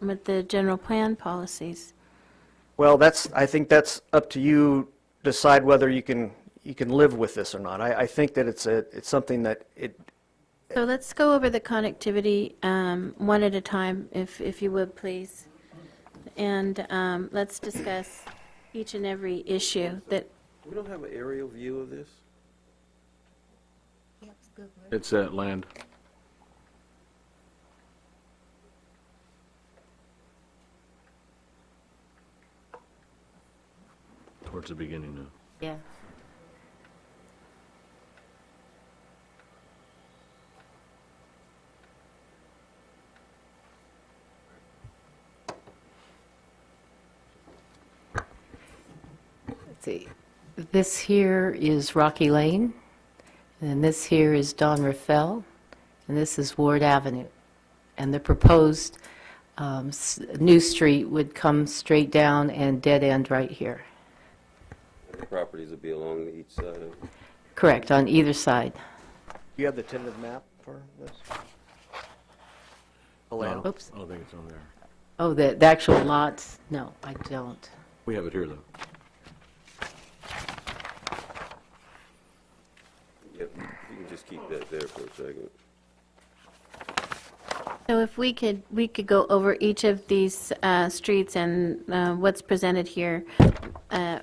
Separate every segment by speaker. Speaker 1: with the general plan policies.
Speaker 2: Well, that's, I think that's up to you, decide whether you can, you can live with this or not. I, I think that it's a, it's something that it,
Speaker 1: So let's go over the connectivity um, one at a time, if, if you would, please. And um, let's discuss each and every issue that,
Speaker 3: We don't have an aerial view of this?
Speaker 4: It's that land. Towards the beginning now.
Speaker 1: yeah.
Speaker 5: See, this here is Rocky Lane, and this here is Don Rafael, and this is Ward Avenue. And the proposed um, s- new street would come straight down and dead end right here.
Speaker 3: The Properties would be along each side of,
Speaker 5: Correct, on either side.
Speaker 2: you have the tentative map for this? The land?
Speaker 5: Oops.
Speaker 4: I don't think it's on there.
Speaker 5: Oh, the the actual lots? No, I don't.
Speaker 4: We have it here, though.
Speaker 3: yep, you can just keep that there for a second.
Speaker 1: So if we could, we could go over each of these uh, streets and uh, what's presented here, uh,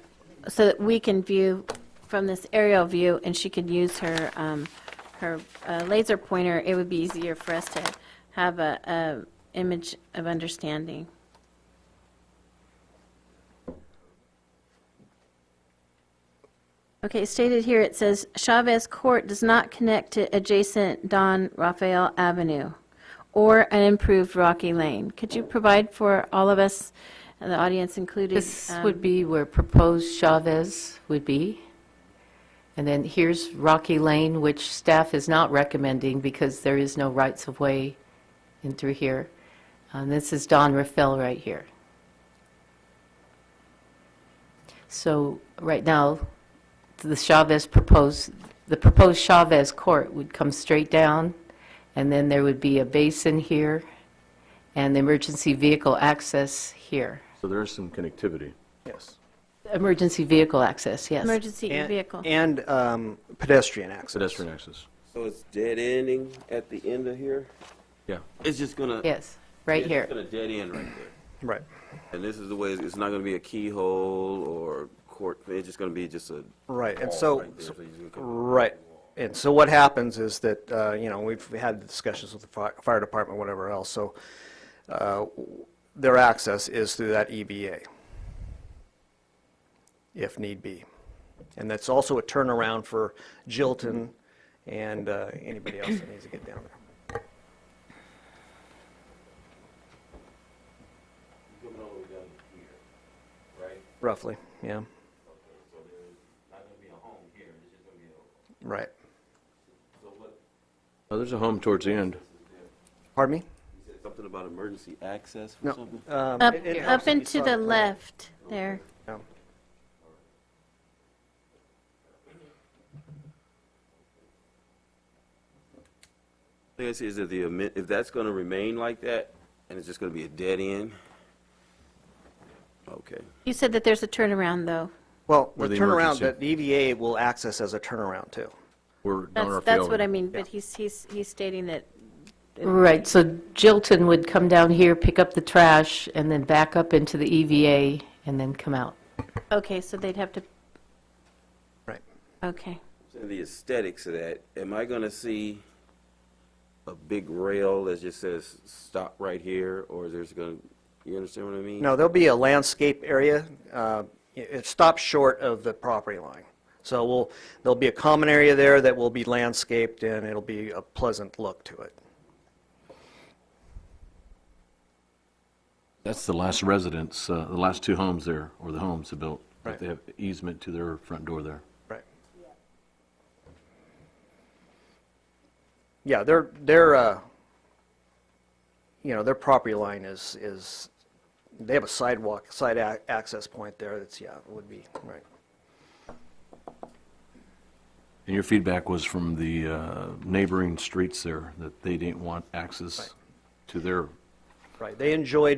Speaker 1: so that we can view from this aerial view, and she could use her, um, her uh, laser pointer, it would be easier for us to have a, a image of understanding. Okay, stated here, it says Chavez Court does not connect to adjacent Don Rafael Avenue or an improved Rocky Lane. Could you provide for all of us, and the audience included?
Speaker 5: This
Speaker 1: um,
Speaker 5: would be where proposed Chavez would be. And then here's Rocky Lane, which staff is not recommending because there is no rights-of-way in through here. And this is Don Rafael right here. So right now, the Chavez proposed, the proposed Chavez court would come straight down, and then there would be a basin here and the emergency vehicle access here.
Speaker 4: So there is some connectivity.
Speaker 2: Yes.
Speaker 5: Emergency vehicle access, yes.
Speaker 1: um, Emergency
Speaker 2: And-
Speaker 1: vehicle.
Speaker 2: And um, pedestrian access.
Speaker 4: Pedestrian access.
Speaker 3: So it's dead ending at the end of here?
Speaker 4: Yeah.
Speaker 3: It's just gonna.
Speaker 5: Yes, right
Speaker 3: it's
Speaker 5: here.
Speaker 3: gonna dead end right there.
Speaker 2: Right.
Speaker 3: And this is the way, it's not gonna be a keyhole or court, it's just gonna be just a.
Speaker 2: Right, and
Speaker 3: wall
Speaker 2: so-
Speaker 3: right there, so you can come-
Speaker 2: Right. And so what happens is that, uh, you know, we've had discussions with the fi- fire department, whatever else, so uh, their access is through that EVA, if need be. And that's also a turnaround for Jilton and uh, anybody else that needs to get down there.
Speaker 3: Coming all the way down here, right?
Speaker 2: Roughly, yeah,
Speaker 3: So there's not gonna be a home here, it's just gonna be a,
Speaker 2: right.
Speaker 3: so what,
Speaker 4: Oh, there's a home towards the end.
Speaker 2: Pardon me?
Speaker 3: you said something about emergency access or
Speaker 2: No.
Speaker 3: something?
Speaker 2: um,
Speaker 1: Up,
Speaker 2: it- it helps
Speaker 1: up
Speaker 2: if you
Speaker 1: and to
Speaker 2: saw
Speaker 1: the
Speaker 2: plan.
Speaker 1: left there.
Speaker 2: Yeah.
Speaker 3: Thing I see is that the, amen- if that's gonna remain like that, and it's just gonna be a dead end? Okay.
Speaker 1: You said that there's a turnaround, though.
Speaker 2: Well, the
Speaker 4: Where the
Speaker 2: turnaround,
Speaker 4: emergency-
Speaker 2: that EVA will access as a turnaround too.
Speaker 4: We're down our
Speaker 1: That's,
Speaker 4: field.
Speaker 1: that's what I mean, but he's, he's, he's stating that,
Speaker 5: Right, so Jilton would come down here, pick up the trash, and then back up into the EVA, and then come out.
Speaker 1: okay, so they'd have to,
Speaker 2: Right.
Speaker 1: okay.
Speaker 3: So the aesthetics of that, am I gonna see a big rail that just says, stop right here, or there's gonna, you understand what I mean?
Speaker 2: No, there'll be a landscape area. uh, It it stops short of the property line. So we'll, there'll be a common area there that will be landscaped, and it'll be a pleasant look to it.
Speaker 4: That's the last residence, uh, the last two homes there, or the homes they built. but
Speaker 2: Right.
Speaker 4: They have easement to their front door there.
Speaker 2: Right. Yeah, their, their, uh, you know, their property line is, is, they have a sidewalk, side ac- access point there that's, yeah, would be, right.
Speaker 4: And your feedback was from the uh, neighboring streets there, that they didn't want access to their
Speaker 2: Right, they enjoyed